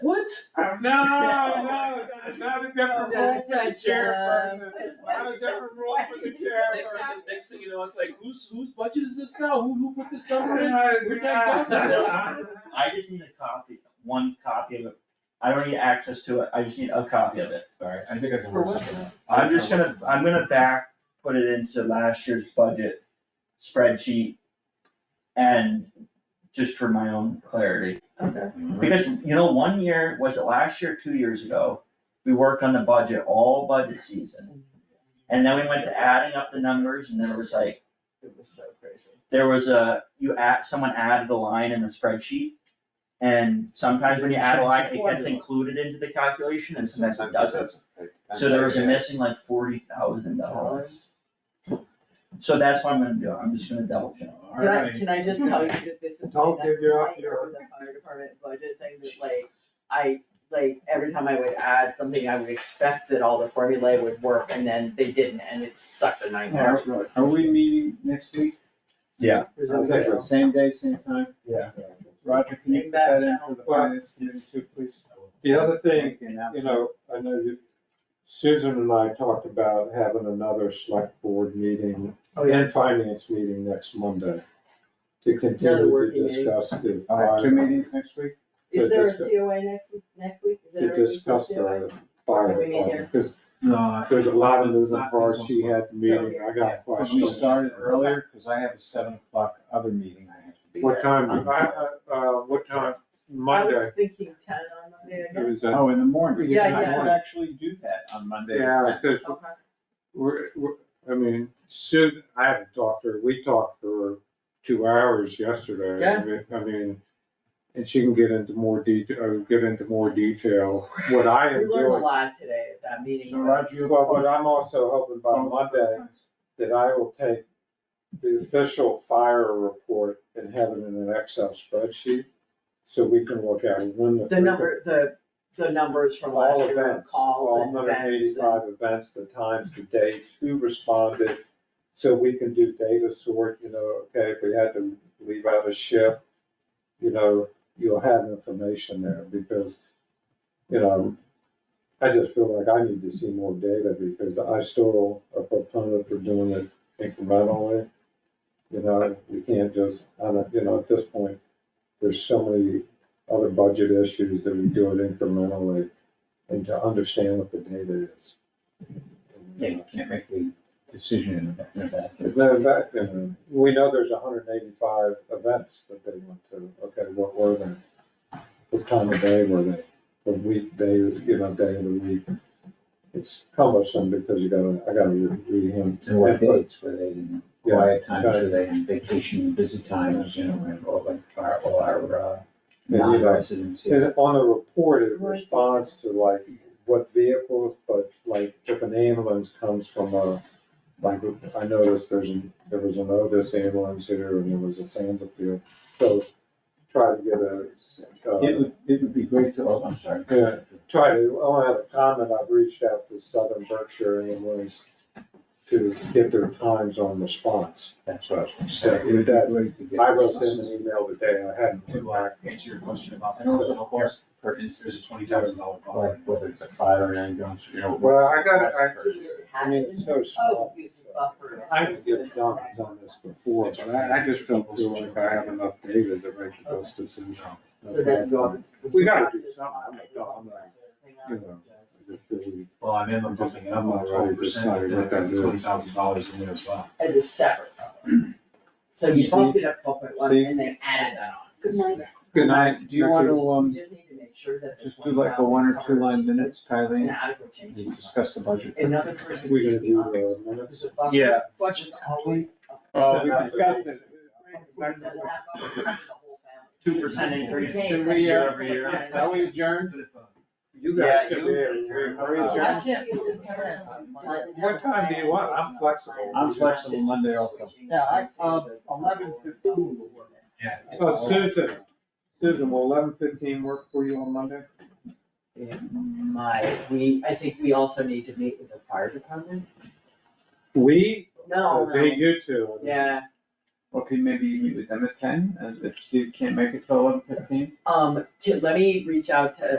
What? No, no, no, not a different uh, rule for the chairperson. Not a different rule for the Next chairperson. thing, next thing you know, it's like, whose, whose budget is this now? Who, who put this number in? Where'd that go? I just need a copy, one copy of it. I don't need access to it, I just need a copy of it. Alright, I think I can work something out. I'm just gonna, I'm gonna back, put it into last year's budget spreadsheet. And just for my own clarity, Okay. because you know, one year, was it last year, two years ago? We worked on the budget all budget Mm-hmm. season. And then we went to adding up the numbers and then it was like, It was so crazy. there was a, you add, someone added a line in the spreadsheet. And sometimes when you add a line, it gets included into the calculation and sometimes it doesn't. So there was a missing like forty thousand dollars. So that's what I'm gonna do, I'm just gonna double check. Can I, can I just tell you that this is. Don't give your- like, or The fire department budget thing that like, I, like, every time I would add something, I would expect that all the formulae would work and then they didn't, and it's such a nightmare. Are we meeting next week? Yeah. Same day, same time? Yeah. Roger, can you put that in for the finance committee too, please? The other thing, you know, I know you, Susan and I talked about having another select board meeting Oh, yeah. and finance meeting next Monday to Another continue working to meeting. discuss the. All right, two fire- meetings next week? Is there a Discuss- COA next week, next week? Is To there a discuss COA? the fire What do we need department, because No. there's a lot of It's moving not- parts, it's she on- had the meeting, I Yeah. got Could we questions. start it earlier, cause I have a seven o'clock other meeting I have to be at. What time, I, I- uh, what time, I Monday, was thinking ten on Monday, it I guess. was at, Oh, in the morning. Yeah, I yeah. could actually do that on Monday. yeah, because Okay. We're, we're, I mean, Sue, I haven't talked to her, we talked for two hours yesterday. I mean- I mean, and she can get into more detail, get into more detail, what I We am learned a doing. lot today at that meeting. So Roger, you But what I'm also hoping by Oh. Monday, that I will take the official fire report and have it in an Excel spreadsheet, so we can look at when the. The number, the, the numbers from last All year, events, calls all and events. hundred and and- eighty-five events, the times, the dates, who responded. So we can do data sort, you know, okay, if we had to leave out a shift, you know, you'll have information there because, you know, I just feel like I need to see more data because I still a proponent for doing it incrementally. You know, we can't just, I don't, you know, at this point, there's so many other budget issues that we do it incrementally and to understand what the data is. Yeah, you can't make the decision in a- in a vacuum. If they're back, then we know there's hundred and eighty-five events that they went to, okay, what were they? What time of day were they? What week, day, you know, day of the week? It's cumbersome because you gotta, I gotta read read him. And what dates were they in, Yeah, quiet times, got were they in vacation, busy times, you know, and all like our, all our, uh, Yeah, you know. non-residents here. And on the report, it responds to like what vehicles, but like if an ambulance comes from a, like, I noticed there's, an- there was an Otis ambulance here and there was a Sandersfield. So try to get a, It uh, would, it would be great to, oh, I'm sorry. Yeah. try to, I want to have a comment, I've reached out to Southern Berkshire ambulance to get their times on response. That's what I was gonna Yeah, say. it would be great to get. I wrote them an email today, I hadn't. To uh, answer your question about the personal cost, perkins, there's a twenty thousand dollar bond. Like whether it's a fire or ambulance, you know. Well, I got, I, I mean, Happened. it's so Oh, small. use the buffer. I could get documents on this before, but I, I just don't feel like I have enough data to make those decisions. So that's gone. We gotta do something, I'm like, no, I'm not, you know. I just feel we- Well, I'm in, I'm bumping it up by I'm already twelve percent, deciding what that is. twenty thousand dollars in there as well. As a separate. problem. So you bumped it up twelve point one and then added that on. Good night. Do you want to, um, You just need to make sure that. just do like a one or two line minutes, An Tyleen? adequate change. We discuss the budget. Another person. We gonna could be do uh, on it. the minutes? There's a buffer. Yeah. Budget's always. Well, we discussed it. Doesn't have buffer, the whole family. Two percent increase Should we, uh, year over year. Are we adjourned? You guys Yeah, should be you- able to- Are we I adjourned? can't be able to cover it. What time do you want? I'm flexible. I'm flexible Monday also. Yeah, I, uh, eleven fifteen. Yeah. Oh, Susan, Susan, will eleven fifteen work for you on Monday? My, we, I think we also need to meet with the fire department. We, No, they, no, you two. yeah, Okay, maybe you meet with them at ten, and if Steve can't make it till eleven fifteen? um, to- let me reach out to